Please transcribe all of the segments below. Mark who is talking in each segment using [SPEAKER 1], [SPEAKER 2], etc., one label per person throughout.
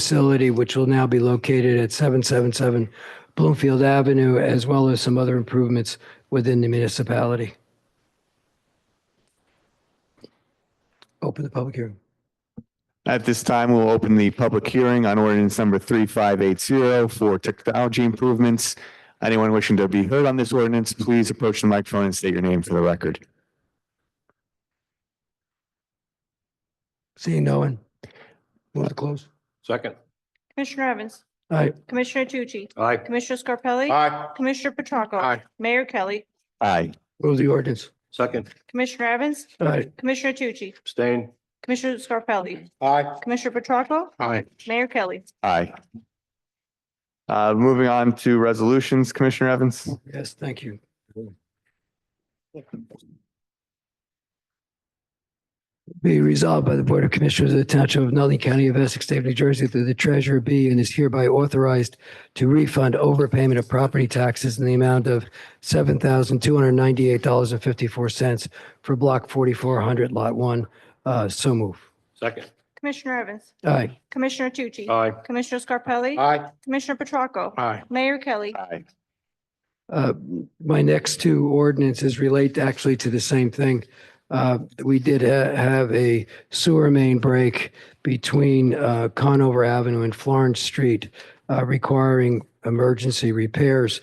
[SPEAKER 1] facility, which will now be located at 777 Bloomfield Avenue, as well as some other improvements within the municipality. Open the public hearing.
[SPEAKER 2] At this time, we'll open the public hearing on ordinance number three five eight zero for technology improvements. Anyone wishing to be heard on this ordinance, please approach the microphone and state your name for the record.
[SPEAKER 1] Seeing no one. Move to close.
[SPEAKER 3] Second.
[SPEAKER 4] Commissioner Evans.
[SPEAKER 1] All right,
[SPEAKER 4] Commissioner Tucci.
[SPEAKER 3] Aye.
[SPEAKER 4] Commissioner Scarpelli.
[SPEAKER 3] Aye.
[SPEAKER 4] Commissioner Petracca.
[SPEAKER 3] Aye.
[SPEAKER 4] Mayor Kelly.
[SPEAKER 2] Aye.
[SPEAKER 1] move the ordinance.
[SPEAKER 3] Second.
[SPEAKER 4] Commissioner Evans.
[SPEAKER 1] All right,
[SPEAKER 4] Commissioner Tucci.
[SPEAKER 3] Abstain.
[SPEAKER 4] Commissioner Scarpelli.
[SPEAKER 3] Aye.
[SPEAKER 4] Commissioner Petracca.
[SPEAKER 3] Aye.
[SPEAKER 4] Mayor Kelly.
[SPEAKER 2] Aye. Uh, moving on to resolutions, Commissioner Evans.
[SPEAKER 1] yes, thank you. Be resolved by the Board of Commissioners of the Township of Nutley County of Essex, State of New Jersey, through the treasurer B, and is hereby authorized to refund overpayment of property taxes in the amount of seven thousand two hundred ninety-eight dollars and fifty-four cents for block forty-four hundred, lot one. Uh, so move.
[SPEAKER 3] Second.
[SPEAKER 4] Commissioner Evans.
[SPEAKER 1] Aye,
[SPEAKER 4] Commissioner Tucci.
[SPEAKER 3] Aye.
[SPEAKER 4] Commissioner Scarpelli.
[SPEAKER 3] Aye.
[SPEAKER 4] Commissioner Petracca.
[SPEAKER 3] Aye.
[SPEAKER 4] Mayor Kelly.
[SPEAKER 2] Aye.
[SPEAKER 1] Uh, My next two ordinances relate actually to the same thing. Uh, We did ha- have a sewer main break between uh, Conover Avenue and Florence Street uh, requiring emergency repairs.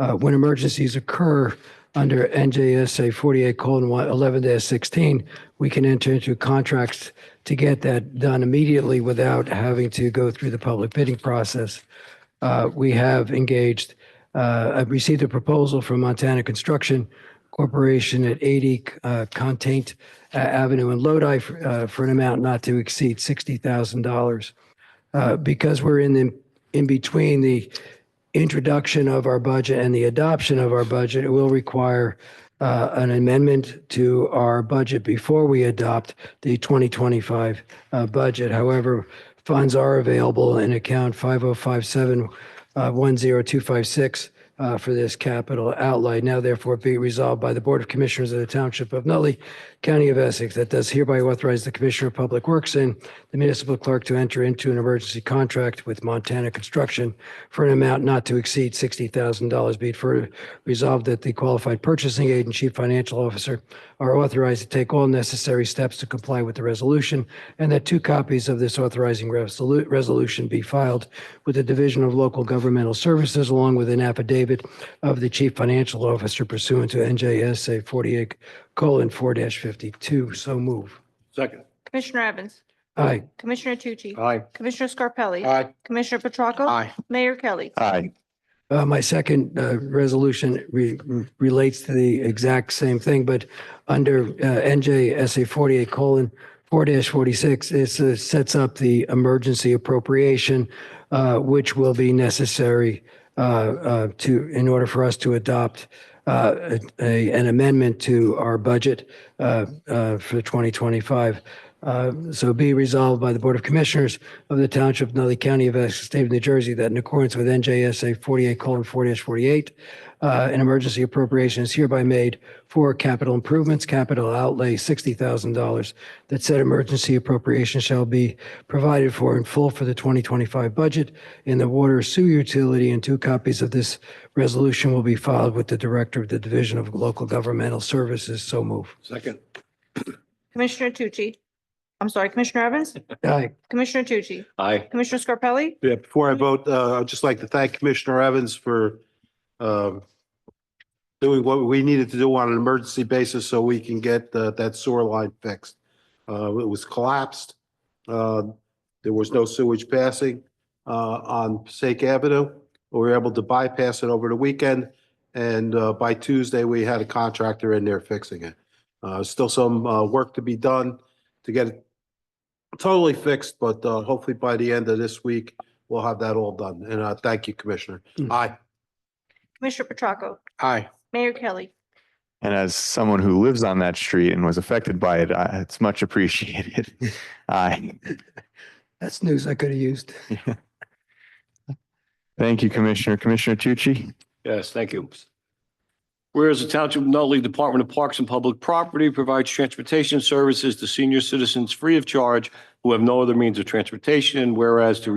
[SPEAKER 1] Uh, When emergencies occur under NJSA 48 colon 11 16, we can enter into contracts to get that done immediately without having to go through the public bidding process. Uh, We have engaged, uh, I've received a proposal from Montana Construction Corporation at 80 uh, Containt uh, Avenue in Lodi for uh, for an amount not to exceed $60,000. Uh, Because we're in the, in between the introduction of our budget and the adoption of our budget, it will require uh, an amendment to our budget before we adopt the 2025 uh, budget. However, funds are available in account 5057 uh, 10256 uh, for this capital outlay. Now therefore be resolved by the Board of Commissioners of the Township of Nutley, County of Essex, that does hereby authorize the Commissioner of Public Works and the municipal clerk to enter into an emergency contract with Montana Construction for an amount not to exceed $60,000. Be it further resolved that the qualified purchasing agent, and chief financial officer are authorized to take all necessary steps to comply with the resolution and that two copies of this authorizing resolu- resolution be filed with the Division of Local Governmental Services along with an affidavit of the chief financial officer pursuant to NJSA 48 colon 4-52. So move.
[SPEAKER 3] Second.
[SPEAKER 4] Commissioner Evans.
[SPEAKER 1] Aye.
[SPEAKER 4] Commissioner Tucci.
[SPEAKER 3] Aye.
[SPEAKER 4] Commissioner Scarpelli.
[SPEAKER 3] Aye.
[SPEAKER 4] Commissioner Petracca.
[SPEAKER 3] Aye.
[SPEAKER 4] Mayor Kelly.
[SPEAKER 2] Aye.
[SPEAKER 1] Uh, my second, uh, resolution re- relates to the exact same thing, but under, uh, NJSA forty-eight colon four forty-six, it uh, sets up the emergency appropriation, uh, which will be necessary, uh, uh, to, in order for us to adopt, uh, a, an amendment to our budget, uh, uh, for twenty twenty-five. Uh, So be resolved by the Board of Commissioners of the Township of Nutley County of Essex, State of New Jersey, that in accordance with NJSA 48:4-48, uh, an emergency appropriation is hereby made for capital improvements, capital outlay $60,000, that said emergency appropriation shall be provided for in full for the 2025 budget in the water sewer utility, and two copies of this resolution will be filed with the Director of the Division of Local Governmental Services. So move.
[SPEAKER 3] Second.
[SPEAKER 4] Commissioner Tucci. I'm sorry, Commissioner Evans.
[SPEAKER 1] Aye.
[SPEAKER 4] Commissioner Tucci.
[SPEAKER 3] Aye.
[SPEAKER 4] Commissioner Scarpelli.
[SPEAKER 5] Yeah, before I vote, uh, I'd just like to thank Commissioner Evans for um, doing what we needed to do on an emergency basis so we can get uh, that sewer line fixed. Uh, It was collapsed. Uh, There was no sewage passing uh, on Passaic Avenue. We were able to bypass it over the weekend, and uh, by Tuesday, we had a contractor in there fixing it. Uh, Still some uh, work to be done to get it totally fixed, but uh, hopefully by the end of this week, we'll have that all done. And uh, thank you, Commissioner.
[SPEAKER 1] Mm.
[SPEAKER 5] Aye.
[SPEAKER 4] Commissioner Petracca.
[SPEAKER 5] Aye.
[SPEAKER 4] Mayor Kelly.
[SPEAKER 2] And as someone who lives on that street and was affected by it, I- it's much appreciated. Aye.
[SPEAKER 1] That's news I could have used.
[SPEAKER 2] Thank you, Commissioner. Commissioner Tucci?
[SPEAKER 3] Yes, thank you. Whereas the Township of Nutley Department of Parks and Public Property provides transportation services to senior citizens free of charge who have no other means of transportation, and whereas to